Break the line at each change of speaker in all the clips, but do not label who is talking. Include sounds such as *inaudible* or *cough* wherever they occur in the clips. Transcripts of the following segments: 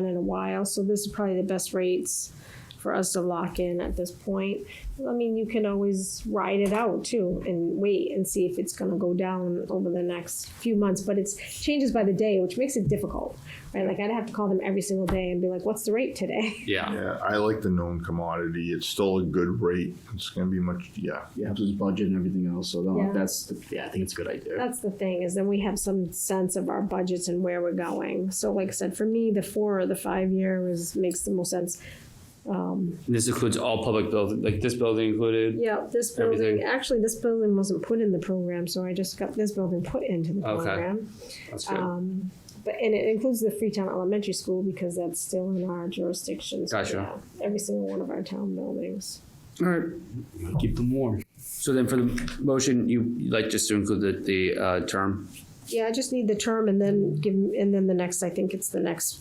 done in a while, so this is probably the best rates for us to lock in at this point. I mean, you can always ride it out too and wait and see if it's gonna go down over the next few months, but it's changes by the day, which makes it difficult. Right, like I'd have to call them every single day and be like, what's the rate today? *laughs*
Yeah.
Yeah, I like the known commodity. It's still a good rate. It's gonna be much, yeah.
You have his budget and everything else, so
Yeah.
no, that's, the- yeah, I think it's a good idea.
That's the thing, is then we have some sense of our budgets and where we're going. So like I said, for me, the four or the five year is, makes the most sense.
And this includes all public buildings, like this building included.
Yeah, this building,
Everything.
actually, this building wasn't put in the program, so I just got this building put into the
Okay.
program. Um,
That's
Oh.
good.
But, and it includes the Freetown Elementary School because that's still in our jurisdiction. so
Gotcha.
yeah, Every single one of our town buildings.
All right. Keep them warm. So then for the motion, you you'd like just to include the, the, uh, term?
Yeah, I just need the term and then give, and then the next, I think it's the next,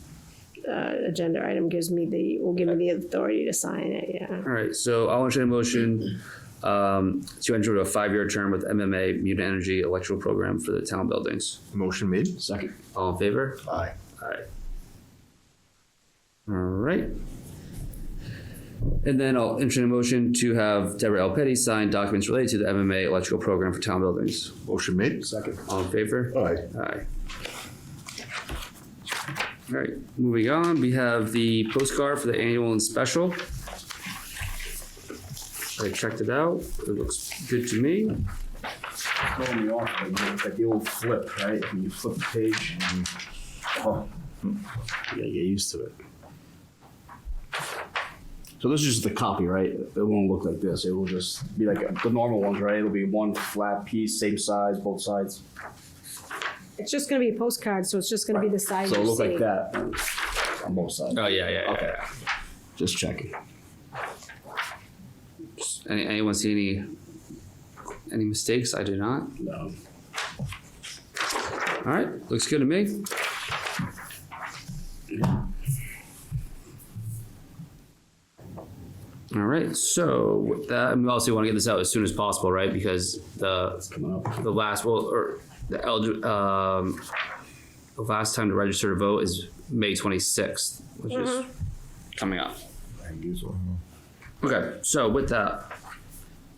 uh, agenda item gives me the, will give me the authority to sign it, yeah.
All right, so I'll entertain a motion um, to enter into a five-year term with MMA Mutant Energy Electrical Program for the town buildings.
Motion made.
Second,
All in favor?
Aye.
Alright. Alright. And then I'll entertain a motion to have Deborah L. Petty sign documents related to the MMA Electrical Program for town buildings.
Motion made.
second.
All in favor?
Aye.
Aye. All right, moving on, we have the postcard for the annual and special. I checked it out, it looks good to me.
Throwing me off, like, it's like the old flip, right? When you flip the page. and you- oh, You gotta get used to it. So this is just the copy, right? It won't look like this. It will just be like the normal ones, right? It'll be one flat piece, same size, both sides.
It's just gonna be a postcard, so it's just gonna be the size
So it'll
you
look
see.
like that on both sides.
Oh, yeah, yeah,
Okay. Just checking.
Any, anyone see any, any mistakes? I do not.
No.
All right, looks good to me. All right, so with that, and we also want to get this out as soon as possible, right? Because the,
Coming up.
the last, well, or the elder, um, the last time to register to vote is May twenty-sixth, which is coming up. Okay, so with that,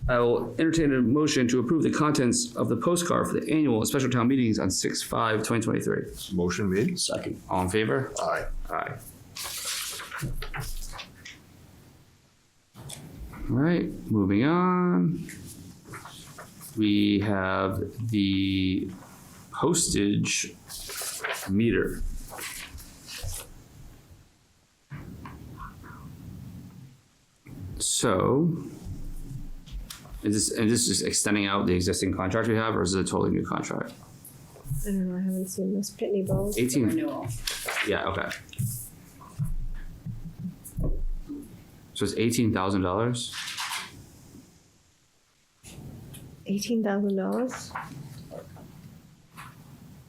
I will entertain a motion to approve the contents of the postcard for the annual and special town meetings on six five twenty twenty-three.
Motion made.
Second.
All in favor?
Aye.
Aye. All right, moving on. We have the postage meter. So is this, and this is extending out the existing contract we have, or is it a totally new contract?
I don't know, I haven't seen this Pitney Bowes.
Eighteen.
renewal.
Yeah, okay. So it's eighteen thousand dollars?
Eighteen thousand dollars?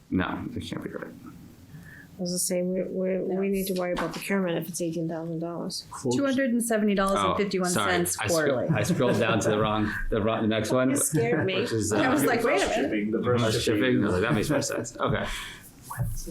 No, that can't be right.
I was gonna say, we, we, we need to worry about procurement if it's eighteen thousand dollars.
Two hundred and seventy dollars
Oh,
and fifty-one
sorry.
cents
I scro-
quarterly.
I scrolled down to the wrong, the wrong, the next one.
You scared me.
*laughs* Which is,
I was
uh,
like, wait a minute.
Shipping, the
plus
first
shipping, I was like, that makes more sense, okay.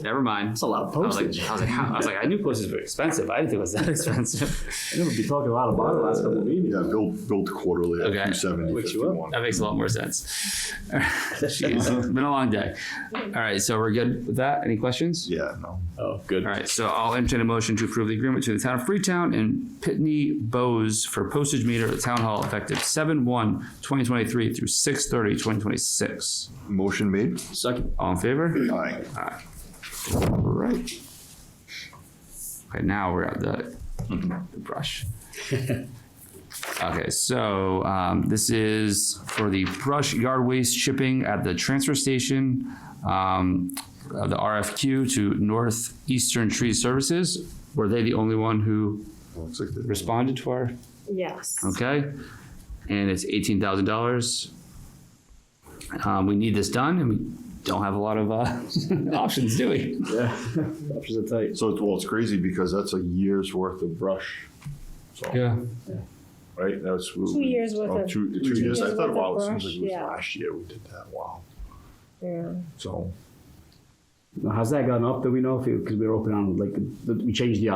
Never mind.
That's a lot of
I was like,
postage.
I was like, how- I was like, I knew postage were expensive, I didn't think it was that *laughs* expensive.
I know we've been talking a lot about it the last couple of meetings.
Yeah, build, build quarterly
Okay.
at two seventy
Wakes you up.
fifty-one.
That makes a lot more sense. *laughs* Jeez, it's been a long day. All right, so we're good with that, any questions?
Yeah, no.
Oh, good.
All right, so I'll entertain a motion to approve the agreement to the town of Freetown and Pitney Bowes for postage meter at Town Hall effective seven one 2023 through 6/30, 2026.
Motion made.
Second.
All in favor?
Aye.
All right. Okay, now we're at the the *laughs* brush. Okay, so, um, this is for the brush yard waste shipping at the transfer station. Um, of the RFQ to Northeastern Tree Services. Were they the only one who
Looks like the-
responded to our,
Yes.
okay? And it's eighteen thousand dollars. Um, we need this done and we don't have a lot of, uh, *laughs* options, do we?
Yeah. *laughs* Options are tight.
So it's, well, it's crazy because that's a year's worth of brush. So,
Yeah.
right? That's.
Two years worth
Oh,
of-
two,
two
two years. I
years
thought,
worth
wow,
of
it seems
brush,
like it was
yeah.
last year we did that. Wow.
Yeah.
So.
Now, How's that gone up? Do we know if, because we were open on, like, the- we changed the